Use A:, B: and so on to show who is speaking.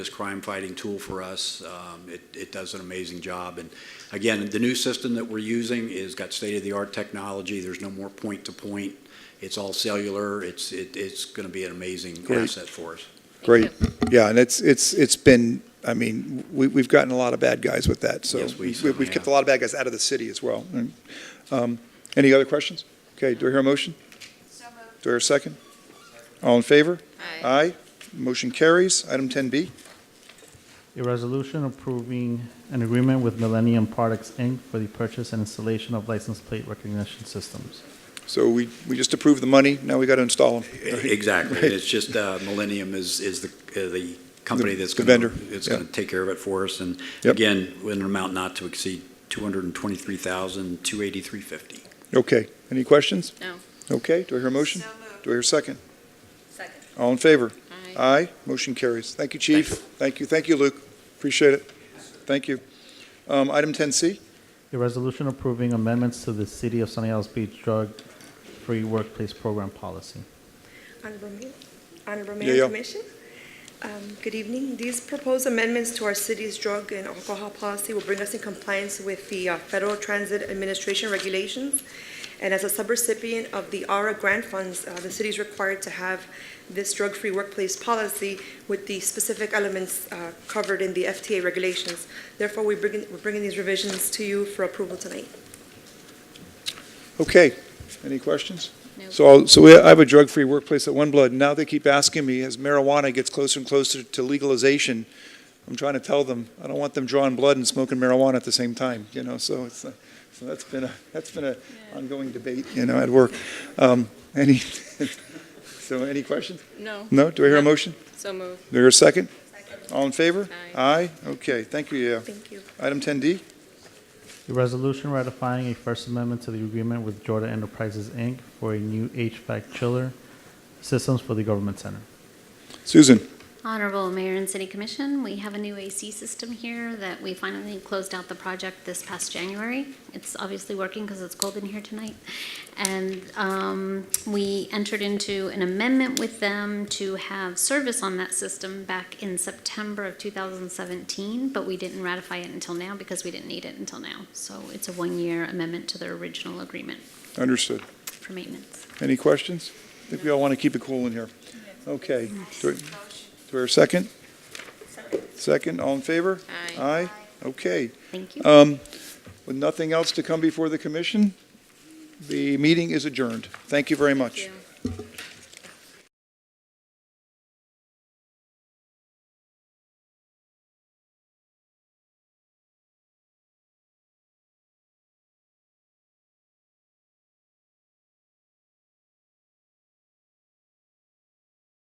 A: this crime-fighting tool for us. Um, It, it does an amazing job. And again, the new system that we're using is got state-of-the-art technology. There's no more point-to-point. It's all cellular. It's, it, it's going to be an amazing
B: Great.
A: asset for us.
B: Great, yeah, and it's, it's, it's been, I mean, we, we've gotten a lot of bad guys with that, so.
A: Yes, we
B: have
A: certainly
B: kept
A: have.
B: a lot of bad guys out of the city as well. And, um, Any other questions? Okay, do I hear a motion?
C: So
B: Do I hear a second? All in favor?
C: moved.
B: Aye, motion carries. Item ten B,
D: A resolution approving an agreement with Millennium Products, Inc. for the purchase and installation of license plate recognition systems.
B: so we, we just approved the money, now we got to install them.
A: E, Exactly. And It's just uh, Millennium is, is the, uh, the company that's
B: The
A: going to.
B: vendor,
A: It's
B: yeah.
A: going to take care of it for us. And
B: Yep.
A: again, with an amount not to exceed $223,283.50.
B: Okay, any questions?
C: No.
B: Okay, do I hear a motion?
C: So moved.
B: Do I hear a second?
C: Second.
B: All in favor?
C: Aye.
B: Aye, motion carries. Thank you, Chief. Thank you, thank you, Luke, appreciate it. Thank you. Um, Item ten C?
D: A resolution approving amendments to the City of Sunny Isles Beach Drug-Free Workplace Program Policy.
E: Honorable Mayor- Honorable
B: Yeah, yeah.
E: Mayor, Commission. Um, Good evening. These proposed amendments to our city's drug and alcohol policy will bring us in compliance with the uh, Federal Transit Administration regulations. And as a subrecipient of the ARA grant funds, uh, the city is required to have this drug-free workplace policy with the specific elements uh, covered in the FTA regulations. Therefore, we bring in- we're bringing these revisions to you for approval tonight.
B: Okay, any questions?
C: No.
B: So, I'll- so we, I have a drug-free workplace at One Blood, and now they keep asking me, as marijuana gets closer and closer to legalization, I'm trying to tell them, I don't want them drawing blood and smoking marijuana at the same time, you know, so it's, uh, so that's been a, that's been a ongoing debate, you know, at work. Um, any, so any questions?
C: No,
B: No? Do I hear a motion?
C: so moved.
B: Do I hear a second? All in favor? Aye?
C: Aye.
B: Okay, thank you, yeah.
E: Thank you.
B: Item ten D?
D: A resolution ratifying a First Amendment to the agreement with Jordan Enterprises, Inc. for a new HVAC chiller systems for the government center.
B: Susan?
F: Honorable Mayor and City Commission, we have a new AC system here that we finally closed out the project this past January. It's obviously working because it's cold in here tonight. And um, we entered into an amendment with them to have service on that system back in September of 2017, but we didn't ratify it until now because we didn't need it until now. So it's a one-year amendment to their original agreement
B: Understood.
F: for maintenance.
B: Any questions? I think we all want to keep it cool in here. Okay. Do I- do I hear a second? Second, all in favor?
C: Aye.
B: Aye? Okay.
F: Thank you.
B: Um, With nothing else to come before the commission, the meeting is adjourned. Thank you very much.
C: you.